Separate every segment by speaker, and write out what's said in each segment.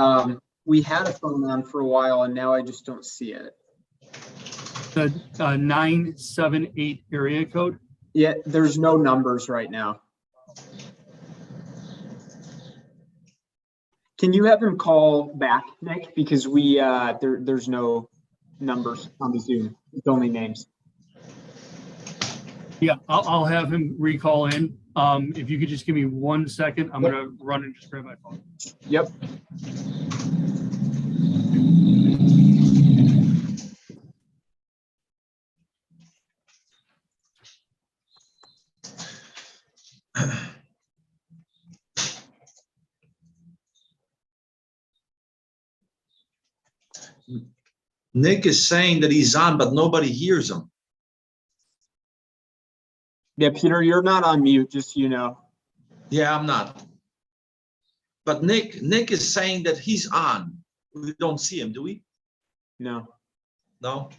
Speaker 1: Um, we had a phone on for a while and now I just don't see it.
Speaker 2: The uh, 978 area code.
Speaker 1: Yeah, there's no numbers right now. Can you have him call back, Nick? Because we, uh, there, there's no numbers on the Zoom. It's only names.
Speaker 2: Yeah, I'll, I'll have him recall in. Um, If you could just give me one second, I'm going to run and just grab my phone.
Speaker 1: Yep.
Speaker 3: Nick is saying that he's on, but nobody hears him.
Speaker 1: Yeah, Peter, you're not on mute, just so you know.
Speaker 3: Yeah, I'm not. But Nick, Nick is saying that he's on. We don't see him, do we?
Speaker 1: No.
Speaker 3: No?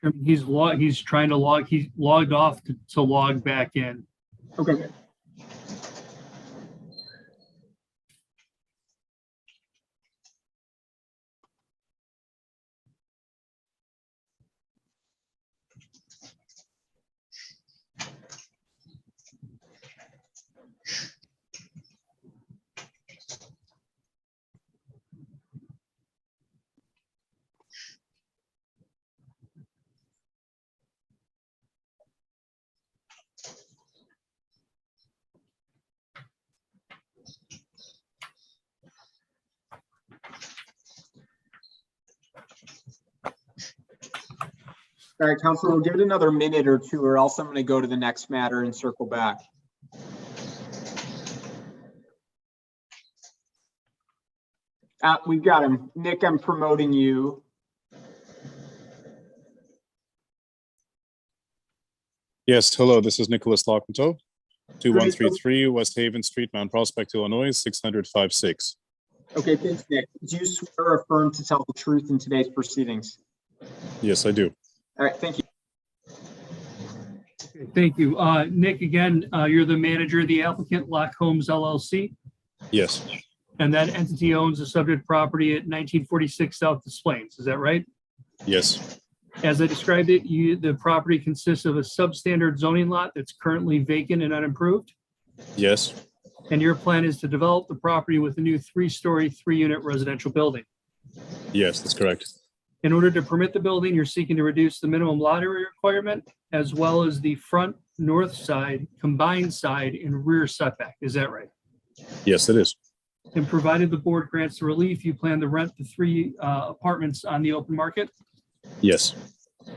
Speaker 2: Chairman, He's log, he's trying to log, he logged off to- to log back in.
Speaker 1: Okay. All right, Counselor, we'll give it another minute or two, or else I'm gonna go to the next matter and circle back. Uh, we've got him. Nick, I'm promoting you.
Speaker 4: Yes, hello, this is Nicholas Lockmento, 2133
Speaker 1: Nicholas.
Speaker 4: West Haven Street, Mount Prospect, Illinois, 6056.
Speaker 1: Okay, thanks, Nick. Do you swear or affirm to tell the truth in today's proceedings?
Speaker 4: Yes, I do.
Speaker 1: All right, thank you.
Speaker 2: Thank you. Uh, Nick, again, uh, you're the manager of the applicant, Lock Homes LLC,
Speaker 4: Yes,
Speaker 2: and that entity owns the subject property at 1946 South Des Plaines. Is that right?
Speaker 4: yes,
Speaker 2: As I described it, you, the property consists of a substandard zoning lot that's currently vacant and unimproved.
Speaker 4: yes,
Speaker 2: And your plan is to develop the property with a new three-story, three-unit residential building.
Speaker 4: yes, that's correct.
Speaker 2: In order to permit the building, you're seeking to reduce the minimum lot area requirement as well as the front, north side, combined side, and rear setback. Is that right?
Speaker 4: Yes, it is.
Speaker 2: And provided the board grants the relief, you plan to rent the three uh, apartments on the open market?
Speaker 4: Yes,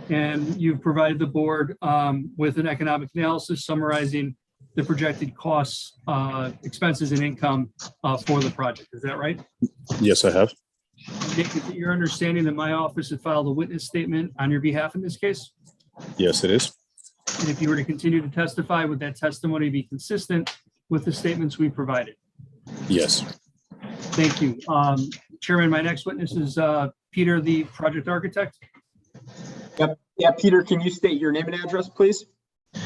Speaker 2: And you've provided the board um, with an economic analysis summarizing the projected costs, uh, expenses and income uh, for the project. Is that right?
Speaker 4: yes, I have.
Speaker 2: Nick, is it your understanding that my office had filed a witness statement on your behalf in this case?
Speaker 4: Yes, it is.
Speaker 2: And if you were to continue to testify, would that testimony be consistent with the statements we provided?
Speaker 4: Yes,
Speaker 2: Thank you. Um, Chairman, my next witness is uh, Peter, the project architect.
Speaker 1: Yeah, Peter, can you state your name and address, please?
Speaker 3: Uh,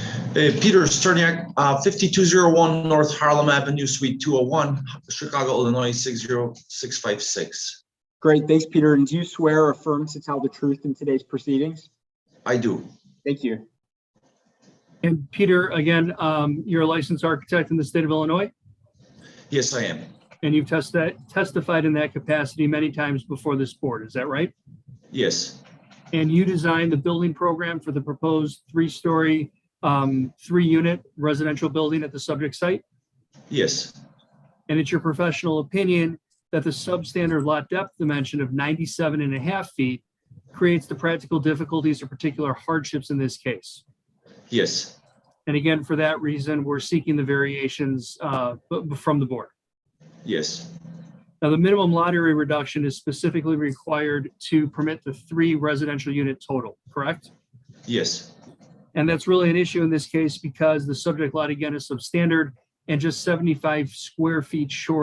Speaker 3: Peter Sterniak, uh, 5201 North Harlem Avenue, Suite 201, Chicago, Illinois, 60656.
Speaker 1: Great, thanks, Peter. And do you swear or affirm to tell the truth in today's proceedings?
Speaker 3: I do.
Speaker 1: Thank you.
Speaker 2: And Peter, again, um, you're a licensed architect in the state of Illinois?
Speaker 3: Yes, I am.
Speaker 2: And you've testi- testified in that capacity many times before this board, is that right?
Speaker 3: Yes,
Speaker 2: And you designed the building program for the proposed three-story, um, three-unit residential building at the subject site?
Speaker 3: yes,
Speaker 2: And it's your professional opinion that the substandard lot depth dimension of 97 and a half feet creates the practical difficulties or particular hardships in this case?
Speaker 3: yes,
Speaker 2: And again, for that reason, we're seeking the variations uh, b- b- from the board.
Speaker 3: yes,
Speaker 2: Now, the minimum lot area reduction is specifically required to permit the three residential unit total, correct?
Speaker 3: yes,
Speaker 2: And that's really an issue in this case because the subject lot again is substandard and just 75 square feet short